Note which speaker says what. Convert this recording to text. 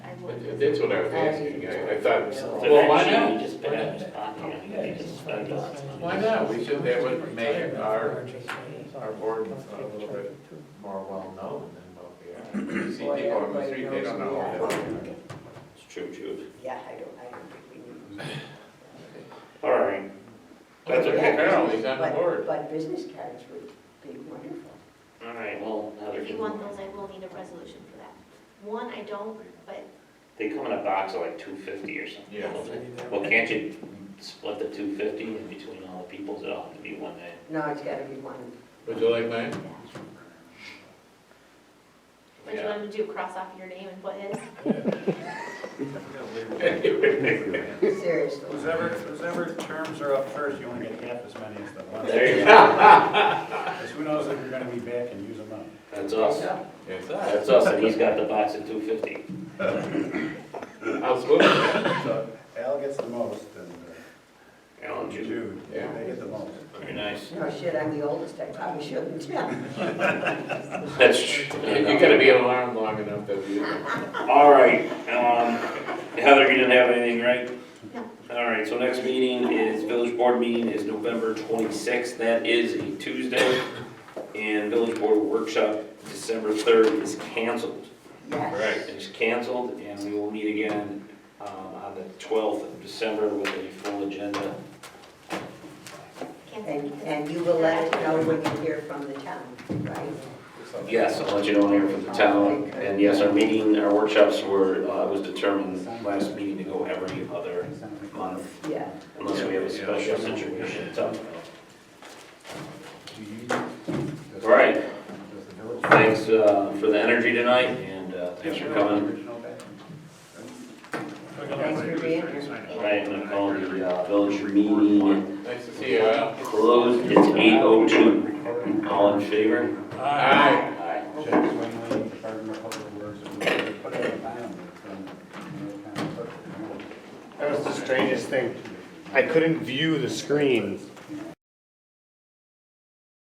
Speaker 1: That- That's what I was asking, I, I thought,
Speaker 2: So
Speaker 1: well, why
Speaker 2: that
Speaker 1: not?
Speaker 2: should be just put on this pocket, you can just spend it on something.
Speaker 1: Why not? We should, that would make our, our board a little bit more well-known than what we are. You See people on the street, they don't know who they are.
Speaker 2: It's true, Jude.
Speaker 3: Yeah, I don't, I don't think we need.
Speaker 2: All right. That's okay.
Speaker 1: Apparently, he's on the
Speaker 3: But-
Speaker 1: board.
Speaker 3: But business cards would be wonderful.
Speaker 2: All right, well, Heather,
Speaker 4: If you
Speaker 2: can-
Speaker 4: want those, I will need a resolution for that. One, I don't, but
Speaker 2: they come in a box of like two fifty or something.
Speaker 1: Yeah.
Speaker 2: don't they? Well, can't you split the two fifty in between all the peoples? It'll have to be one day.
Speaker 3: No, it's gotta be one.
Speaker 1: Would you like mine?
Speaker 4: would you
Speaker 1: Yeah.
Speaker 4: want him to do, cross off your name and put his?
Speaker 3: Seriously.
Speaker 5: Who's ever, who's ever terms are up first, you only get half as many as the ones.
Speaker 2: There you go.
Speaker 5: Because who knows if you're gonna be back and use them up.
Speaker 2: That's us.
Speaker 1: Yes,
Speaker 2: That's us, and he's got the box of two fifty.
Speaker 1: I'll split it.
Speaker 5: So Al gets the most and uh,
Speaker 2: Alan, Jude,
Speaker 5: Jude, they
Speaker 1: Yeah.
Speaker 5: get the most.
Speaker 2: very nice.
Speaker 3: No, shit, I'm the oldest, I probably shouldn't.
Speaker 2: That's true.
Speaker 1: You gotta be alarmed long enough that you.
Speaker 2: All right, um, Heather, you didn't have anything, right?
Speaker 4: No.
Speaker 2: All right, so next meeting is, village board meeting is November twenty-sixth, that is a Tuesday. And village board workshop, December third is canceled.
Speaker 3: Yes.
Speaker 2: It is canceled, and we will meet again, um, on the twelfth of December with a full agenda.
Speaker 3: And, and you will let us know when you hear from the town, right?
Speaker 2: Yes, I'll let you know here from the town, and yes, our meeting, our workshops were, uh, was determined last meeting to go every other month.
Speaker 3: Yeah.
Speaker 2: Unless we have a special situation, so. All right, thanks uh, for the energy tonight, and uh, thanks for coming.
Speaker 3: Thanks for being here.
Speaker 2: All right, I'm gonna call the uh, village meeting
Speaker 1: Nice to see you, Al.
Speaker 2: closed, it's 8:02. All in favor?
Speaker 1: Aye.
Speaker 2: Aye.
Speaker 5: That uh,
Speaker 6: That was the strangest thing. I couldn't view the screen